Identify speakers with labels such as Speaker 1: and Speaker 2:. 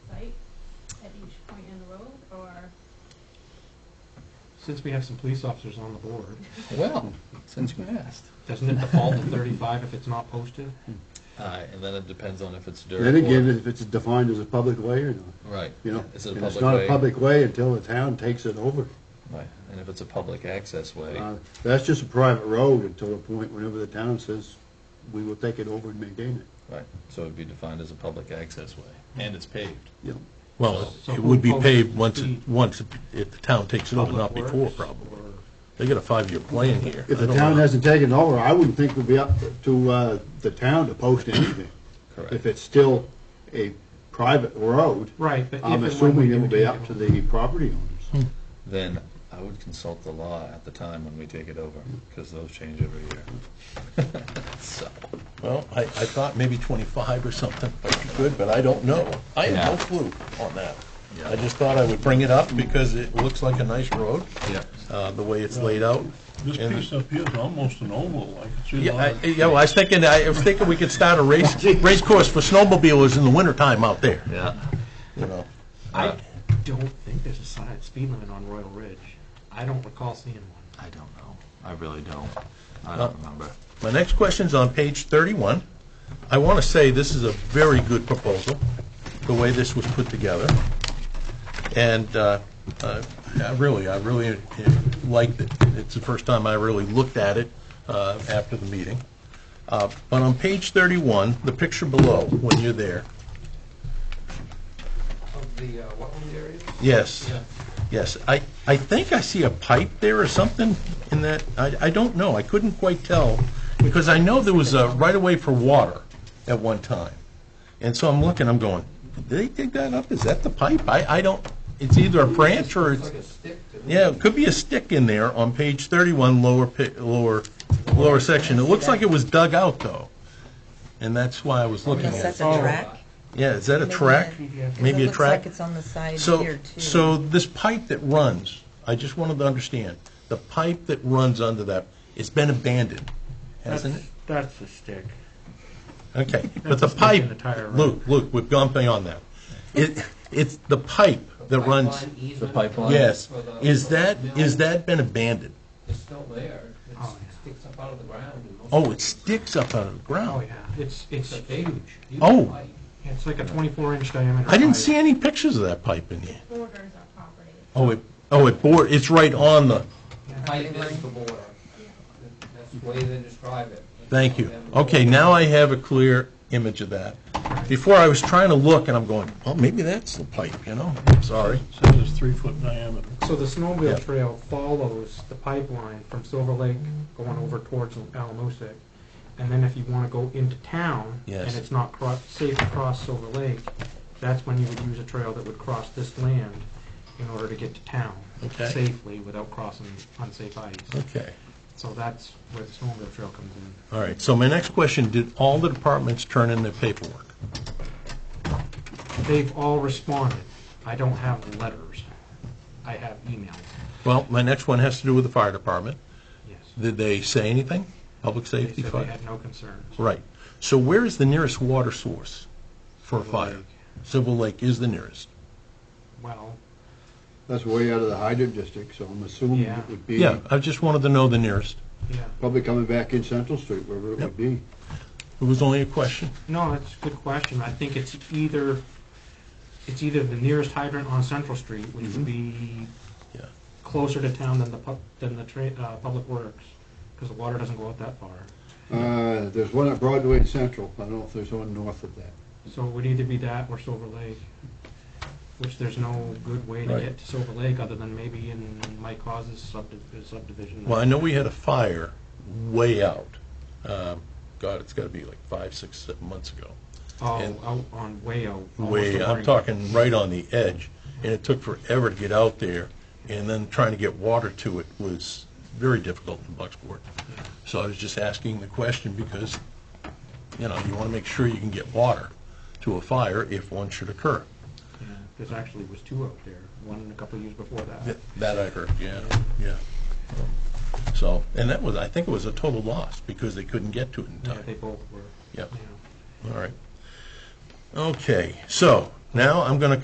Speaker 1: Since we have some police officers on the board,
Speaker 2: Well, since you asked.
Speaker 1: doesn't it default to thirty-five if it's not posted?
Speaker 2: Uh, and then it depends on if it's dirt.
Speaker 3: Then
Speaker 2: or-
Speaker 3: again, if it's defined as a public way or not,
Speaker 2: Right.
Speaker 3: you know?
Speaker 2: Is it a
Speaker 3: And it's
Speaker 2: public
Speaker 3: not
Speaker 2: way?
Speaker 3: a public way until the town takes it over.
Speaker 2: Right, and if it's a public access way,
Speaker 3: Uh, That's just a private road until a point whenever the town says, we will take it over and maintain it.
Speaker 2: right, so it'd be defined as a public access way, and it's paved.
Speaker 3: You know,
Speaker 4: Well,
Speaker 1: So
Speaker 4: it would be
Speaker 1: who
Speaker 4: paved
Speaker 1: owns
Speaker 4: once,
Speaker 1: the-
Speaker 4: it- once, it- if the town takes it over, not
Speaker 1: Public
Speaker 4: before,
Speaker 1: Works
Speaker 4: probably.
Speaker 1: or-
Speaker 4: They got a five-year plan here.
Speaker 3: If
Speaker 4: I
Speaker 3: the
Speaker 4: don't
Speaker 3: town
Speaker 4: know.
Speaker 3: hasn't taken over, I wouldn't think it would be up to uh, the town to post anything.
Speaker 2: Correct.
Speaker 3: If it's still a private road,
Speaker 1: Right, but if and
Speaker 3: I'm
Speaker 1: when we
Speaker 3: assuming
Speaker 1: do
Speaker 3: it will be
Speaker 1: take
Speaker 3: up
Speaker 1: it
Speaker 3: to
Speaker 1: over.
Speaker 3: the property
Speaker 1: Hmm.
Speaker 3: owners.
Speaker 2: Then I would consult the law at the time when we take it over, because those change every year. So,
Speaker 4: Well, I, I thought maybe 25 or something, might be good, but I don't know. I have no
Speaker 2: Yeah.
Speaker 4: clue on that.
Speaker 2: Yeah.
Speaker 4: I just thought I would bring it up because it looks like a nice road,
Speaker 2: yeah,
Speaker 4: uh, the way it's laid out.
Speaker 5: This
Speaker 4: And-
Speaker 5: piece up here is almost an oval, like it's in
Speaker 4: Yeah, I,
Speaker 5: line.
Speaker 4: yeah, well, I was thinking, I was thinking we could start a
Speaker 3: Oh,
Speaker 4: race, race course for snowmobilers in the wintertime out there,
Speaker 2: yeah.
Speaker 4: you know?
Speaker 1: I don't think there's a side speed limit on Royal Ridge. I don't recall seeing one.
Speaker 2: I don't know. I really don't. I don't remember.
Speaker 4: My next question's on page 31. I want to say this is a very good proposal, the way this was put together. And uh, uh, I really, I really uh, liked it. It's the first time I really looked at it uh, after the meeting. Uh, But on page 31, the picture below, when you're there,
Speaker 6: Of the uh, wetland area?
Speaker 4: yes, yes, I, I think I see a pipe there or something in that, I, I don't know, I couldn't quite tell, because I know there was a right-of-way for water at one time. And so I'm looking, I'm going, did they dig that up? Is that the pipe? I, I don't, it's either a branch or it's,
Speaker 6: Like a stick to the-
Speaker 4: yeah, it could be a stick in there on page 31, lower, pi- lower, lower section. It looks like it was dug out, though, and that's why I was looking at it.
Speaker 7: Unless that's a track.
Speaker 4: Yeah, is that a track? Maybe
Speaker 7: It
Speaker 4: a
Speaker 7: looks like
Speaker 4: track?
Speaker 7: it's on the side
Speaker 4: So,
Speaker 7: here, too.
Speaker 4: so this pipe that runs, I just wanted to understand, the pipe that runs under that, it's been abandoned, hasn't it?
Speaker 1: That's the stick.
Speaker 4: Okay, but the
Speaker 1: a stick in
Speaker 4: pipe,
Speaker 1: the tire, right?
Speaker 4: Luke, Luke, we've gone beyond that. It, it's the pipe that runs,
Speaker 6: Pipeline easement
Speaker 2: The pipeline?
Speaker 4: yes,
Speaker 6: for the-
Speaker 4: is
Speaker 6: for the
Speaker 4: that,
Speaker 6: mill.
Speaker 4: is that been abandoned?
Speaker 6: It's still there. It
Speaker 1: Oh, yeah.
Speaker 6: sticks up out of the ground. and most-
Speaker 4: Oh, it sticks up out of the
Speaker 1: Oh,
Speaker 4: ground.
Speaker 1: yeah, it's,
Speaker 6: It's
Speaker 1: it's,
Speaker 6: a huge, huge
Speaker 4: Oh.
Speaker 6: pipe.
Speaker 1: it's like a twenty-four inch diameter.
Speaker 4: I didn't
Speaker 1: pipe.
Speaker 4: see any pictures of that pipe in here.
Speaker 8: borders our property.
Speaker 4: Oh, it, oh, it bore, it's right on the,
Speaker 6: Pipe is the border. That's the way they describe it. uh,
Speaker 4: Thank you.
Speaker 6: Them-
Speaker 4: Okay, now I have a clear image of that. Before, I was trying to look, and I'm going, well, maybe that's the pipe, you know? I'm sorry.
Speaker 5: Says it's three foot diameter.
Speaker 1: So the
Speaker 4: Yeah.
Speaker 1: snowmobile trail follows the pipeline from Silver Lake going over towards Alamoosic. And then if you want to go into town, and
Speaker 4: Yes.
Speaker 1: it's not cro- safe to cross Silver Lake, that's when you would use a trail that would cross this land in order to get to town
Speaker 4: Okay.
Speaker 1: safely without crossing unsafe ice.
Speaker 4: Okay,
Speaker 1: So that's where the snowmobile trail comes in.
Speaker 4: all right. So my next question, did all the departments turn in their paperwork?
Speaker 1: They've all responded. I don't have letters. I have emails,
Speaker 4: Well, my next one has to do with the fire department.
Speaker 1: yes.
Speaker 4: Did they say anything? Public
Speaker 1: They
Speaker 4: safety?
Speaker 1: said they
Speaker 4: fire?
Speaker 1: had no concerns.
Speaker 4: Right. So where is the nearest water source for a fire? Civil Lake is the nearest.
Speaker 1: Well,
Speaker 3: That's way out of the hydrant district, so I'm assuming
Speaker 1: Yeah.
Speaker 3: it would be
Speaker 4: Yeah, I just wanted to know the nearest.
Speaker 1: yeah.
Speaker 3: probably coming back in Central Street, wherever it would be.
Speaker 4: It was only a question.
Speaker 1: No, that's a good question. I think it's either, it's either the nearest hydrant on Central Street, which
Speaker 4: Mm-hmm.
Speaker 1: would be
Speaker 4: Yeah.
Speaker 1: closer to town than the pub, than the tra- uh, Public Works, because the water doesn't go out that far.
Speaker 3: Uh, There's one at Broadway and Central. I don't know if there's one north of that.
Speaker 1: So it would either be that or Silver Lake, which there's no good way to
Speaker 4: Right.
Speaker 1: get to Silver Lake other than maybe in Mike Hawes' subdiv- subdivision.
Speaker 4: Well, I know we had a fire way out. Um, God, it's got to be like five, six, seven months ago.
Speaker 1: Oh,
Speaker 4: and-
Speaker 1: out on Wayo. almost
Speaker 4: Way,
Speaker 1: to
Speaker 4: I'm
Speaker 1: Warrington.
Speaker 4: talking right on the edge, and it took forever to get out there, and then trying to get water to it was very difficult in Bucksport. So I was just asking the question because, you know, you want to make sure you can get water to a fire if one should occur.
Speaker 1: Yeah, There's actually was two out there, one a couple of years before that.
Speaker 4: That that I heard, yeah, yeah. So, and that was, I think it was a total loss because they couldn't get to it in
Speaker 1: Yeah,
Speaker 4: time.
Speaker 1: they both were.
Speaker 4: Yep.
Speaker 1: yeah.
Speaker 4: All right. Okay, so now I'm going to